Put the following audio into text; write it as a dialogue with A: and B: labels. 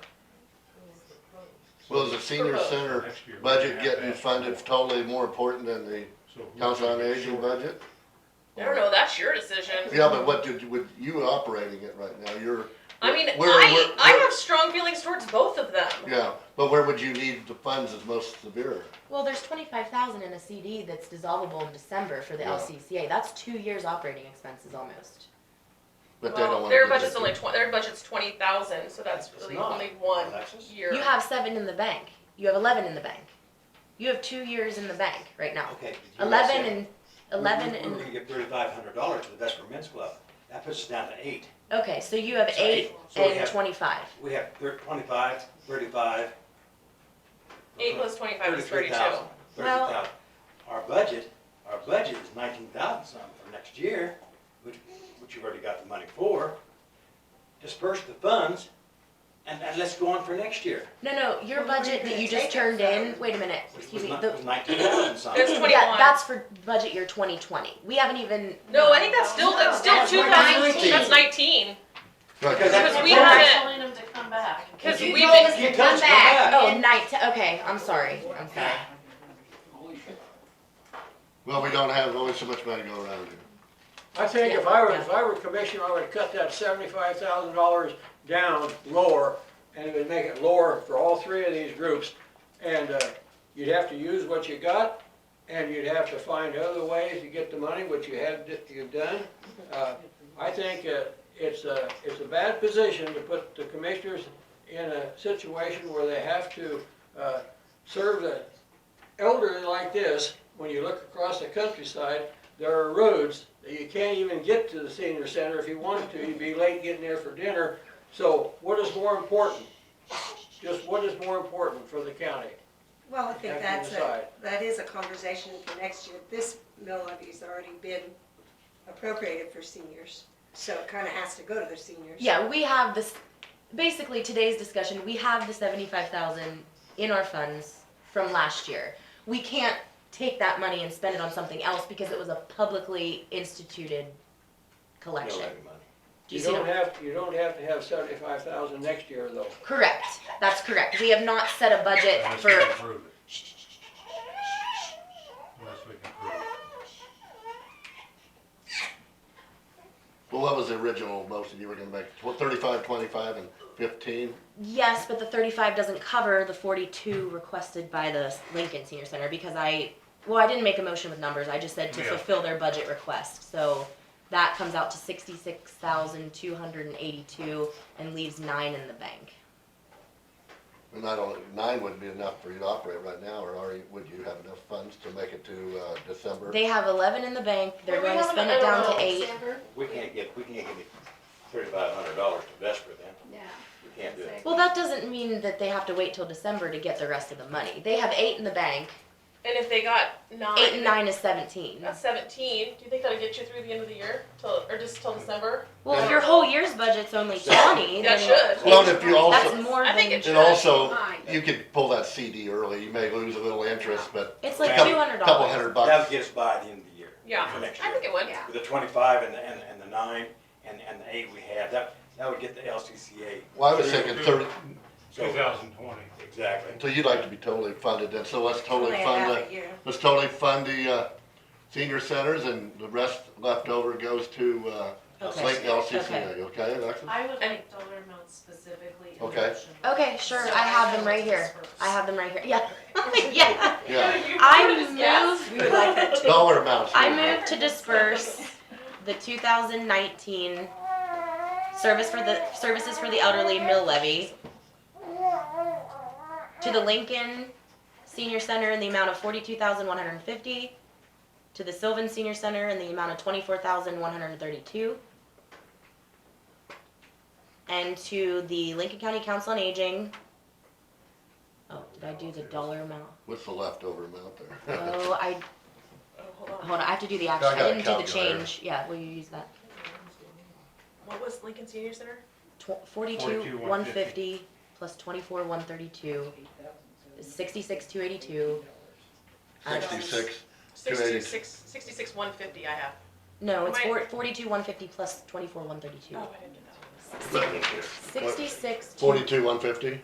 A: senior center
B: Next year, we're gonna
A: budget
B: have to
A: getting
B: ask
A: funded
B: for
A: totally more important than the
B: So who's
A: council on
B: gonna get
A: aging
B: short?
A: budget?
C: I don't know, that's your decision.
A: Yeah, but what did, with you operating it right now, you're.
C: I mean,
A: where-
C: I,
A: where-
C: I
A: where-
C: have strong feelings towards both of them.
A: Yeah, but where would you need the funds is most severe?
D: Well, there's twenty-five thousand in a CD that's dissolvable in December for the
A: Yeah.
D: LCCA. That's two years operating expenses almost.
A: But they don't
C: Well,
A: wanna.
C: their
A: give it
C: budget's
A: to
C: only
A: you.
C: twen- their budget's twenty thousand, so that's
B: It's
C: really
B: not,
C: only one
B: Alexis.
C: year.
D: You have seven in the bank. You have eleven in the bank. You have two years in the bank right now.
E: Okay. but you
D: Eleven
E: said
D: and
E: we-
D: eleven
E: we- We're
D: and
E: gonna get thirty-five hundred dollars to the Vesper Men's Club. That puts us down to eight.
D: okay, so you have
E: So
D: eight
E: So we
D: and
E: have,
D: twenty-five.
E: we have thir- twenty-five, thirty-five.
C: Eight plus twenty-five is
E: Thirty-three
C: thirty-two.
E: thousand. Thirty
D: Well-
E: thousand. Our budget, our budget is nineteen thousand something for next year, which, which you've already got the money for. Disperse the funds and, and let's go on for next year.
D: No, no, your
F: Well, where are you
D: budget that
F: gonna
D: you just
F: take it
D: turned in,
F: from?
D: wait a minute,
E: Which
D: excuse
E: was
D: me,
E: not,
D: the,
E: was nineteen thousand something.
C: There's 20
D: yeah,
C: 21.
D: that's for budget year twenty twenty. We haven't even,
C: No, I think that's still, that's still
F: No,
C: two
F: that's
C: thousand,
F: 19.
C: that's nineteen,
A: Right,
E: Because
A: that's-
C: Because we
F: We're not
C: haven't-
F: Telling them to come back.
C: cause
E: You
C: we've,
E: told
C: been-
E: us You to come come back. back.
D: oh, night, okay, I'm sorry, I'm sorry.
A: Well, we don't have only so much money to go around here.
G: I think if I were, if I were commissioner, I would cut that seventy-five thousand dollars down lower, and it would make it lower for all three of these groups. And, uh, you'd have to use what you got, and you'd have to find other ways to get the money, which you had, you've done. Uh, I think, uh, it's a, it's a bad position to put the commissioners in a situation where they have to, uh, serve the elderly like this. When you look across the countryside, there are roads that you can't even get to the senior center if you wanted to, you'd be late getting there for dinner. So what is more important? Just what is more important for the county?
F: Well, I
G: Have
F: think
G: to
F: that's a,
G: decide.
F: that is a conversation for next year. This mill levy's already been appropriated for seniors, so it kinda has to go to the seniors.
D: Yeah, we have this, basically today's discussion, we have the seventy-five thousand in our funds from last year. We can't take that money and spend it on something else because it was a publicly instituted
E: No
D: collection.
E: levy money.
D: Do
G: You
D: you see what
G: don't
D: I'm-
G: have, you don't have to have seventy-five thousand next year though.
D: Correct, that's correct. We have not set a budget
B: Unless we
D: for,
B: can prove it. Unless we can prove it.
A: Well, what was the original motion you were gonna make? Tw- Thirty-five, twenty-five and fifteen?
D: yes, but the thirty-five doesn't cover the forty-two requested by the Lincoln Senior Center because I, well, I didn't make a motion with numbers, I just said to
B: Yeah.
D: fulfill their budget request, so that comes out to sixty-six thousand two hundred and eighty-two and leaves nine in the bank.
A: And I don't, nine wouldn't be enough for you to operate right now, or are you, would you have enough funds to make it to, uh, December?
D: They have eleven in the bank, they're
C: Were we
D: going to
C: having
D: spend
C: a-
D: it
C: I
D: down
C: don't
D: to
C: know,
D: eight.
E: We can't get, we can't get thirty-five hundred dollars to Vesper then.
F: Yeah.
E: We can't do it.
D: Well, that doesn't mean that they have to wait till December to get the rest of the money. They have eight in the bank,
C: and if they got nine.
D: eight and nine is seventeen.
C: That's seventeen, do you think that'll get you through the end of the year, till, or just till December?
D: Well, if your whole year's budget's only twenty,
C: That
D: then
C: should.
A: Well, if you
D: that's
A: also,
D: more
C: I think
D: than,
C: it should.
A: and also,
F: Fine.
A: you could pull that CD early, you may lose a little interest, but
D: it's like
E: Couple-
D: two hundred
A: couple
D: dollars.
A: hundred
E: That would
A: bucks.
E: get us by the end of the year.
C: Yeah,
E: For next
C: I think
E: year.
C: it would.
F: Yeah.
E: With the twenty-five and the, and, and the nine and, and the eight we have, that, that would get the LCCA.
A: Well, I was thinking thirty,
E: So-
B: Two thousand twenty.
E: Exactly.
A: so you'd like to be totally funded then, so let's
G: Oh,
A: totally
F: Only a
A: fund
F: half
A: the,
F: a year.
A: let's totally fund the, uh, senior centers and the rest left over goes to, uh,
D: Okay.
A: Lake LCCA,
D: Okay.
A: okay, Alexis?
H: I would
C: And-
H: like dollar amounts specifically. in the
A: Okay.
H: motion.
D: Okay, sure,
H: So
D: I have them
H: know
D: right
H: what's
D: here.
H: first.
D: I have them right here. Yeah, yeah.
A: Yeah,
D: I move.
A: dollar amounts.
D: I move to disperse the 2019 service for the services for the elderly mill levy to the Lincoln Senior Center in the amount of 42,150, to the Sylvan Senior Center in the amount of 24,132, and to the Lincoln County Council on Aging. Oh, did I do the dollar amount?
A: What's the leftover amount there?
D: Oh, I
C: Oh, hold on,
D: Hold on, I have to do the action.
A: I got
D: I
A: a
D: didn't do the
A: calculator.
D: change. Yeah, will you use that?
C: what was Lincoln Senior Center?
D: Tw- Forty-two,
B: 42,
D: one fifty, plus twenty-four, one thirty-two, sixty-six, two eighty-two.
A: Sixty-six.
C: Sixty-six, sixty-six, one fifty I have.
D: No, it's
C: Am I-
D: four, forty-two, one fifty, plus twenty-four, one thirty-two.
C: Oh, I didn't get that.
D: Sixty-six. two-
A: Forty-two, one fifty?